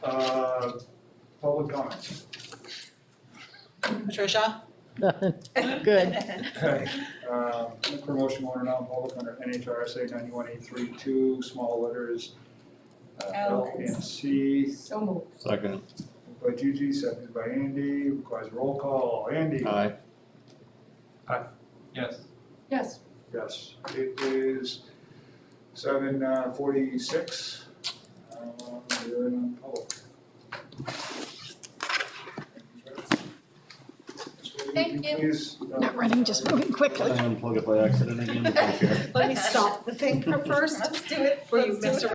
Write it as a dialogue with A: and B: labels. A: Uh, public comments?
B: Patricia?
C: None. Good.
A: Okay, um, look for motion going to non-public under NHRSA ninety-one eight three two, small letters uh, L
D: L.
A: and C,
D: So moved.
E: Second,
A: moved by Gigi, seconded by Andy, requires roll call, Andy?
E: aye.
F: Yes.
D: Yes.
A: Yes, it is seven uh, forty-six. Um, We're in public.
D: Thank you.
C: Not running, just moving
E: Did I
C: quickly.
E: unplug it by accident again? Okay.
B: Let me stop the finger first
D: Let's do it.
B: before you
D: Let's do
B: mess
D: it.